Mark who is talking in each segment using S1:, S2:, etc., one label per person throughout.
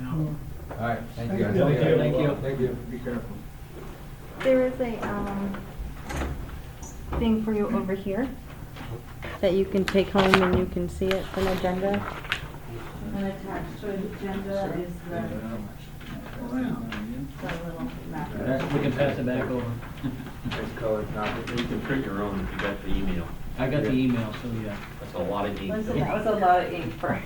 S1: now.
S2: All right, thank you.
S3: Thank you.
S2: Thank you. Thank you.
S1: Be careful.
S4: There is a, um, thing for you over here that you can take home and you can see it from agenda.
S5: And attached to the agenda is the, the little map.
S3: We can pass it back over.
S6: Nice color copy. You can print your own if you got the email.
S3: I got the email, so yeah.
S6: That's a lot of ink.
S5: Listen, that was a lot of ink for.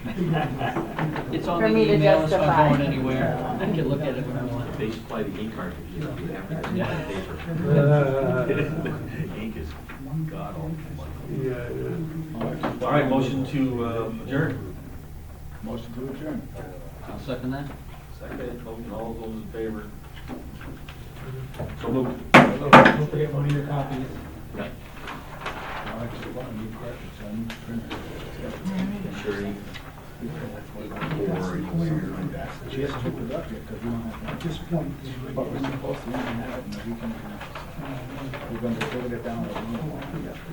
S3: It's on
S5: For
S3: the
S5: me to
S3: email, it's
S5: justify.
S3: not going anywhere. I can look at it when I want.
S6: They supply the ink cartridge, you don't have to print it on paper. Ink is god awful. All right, motion to uh, adjourn.
S1: Motion to adjourn.
S3: I'll second that.
S6: Second, all those in favor? So moved.
S3: Don't forget one of your copies.
S1: Alex, you want to be careful, son.
S6: Sure. you- Or you can-
S1: She has to be productive, because we don't have, at this point, but we're supposed to even have it in the weekend. We're going to put it down.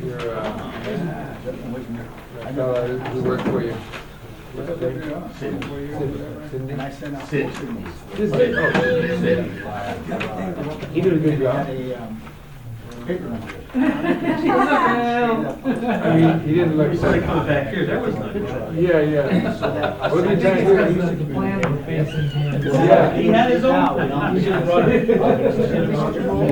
S2: You're, uh,
S1: I
S2: I
S1: know.
S2: know, we work for you.
S1: Cindy. And I sent out four signals.
S2: He did a good
S1: Had
S2: job.
S1: a, um, paper on it.
S2: I mean, he didn't look.
S6: He's like, "Come back here, that was not good."
S2: Yeah, yeah. What are you trying to do?
S1: plan.
S2: Yeah.
S3: He had his own.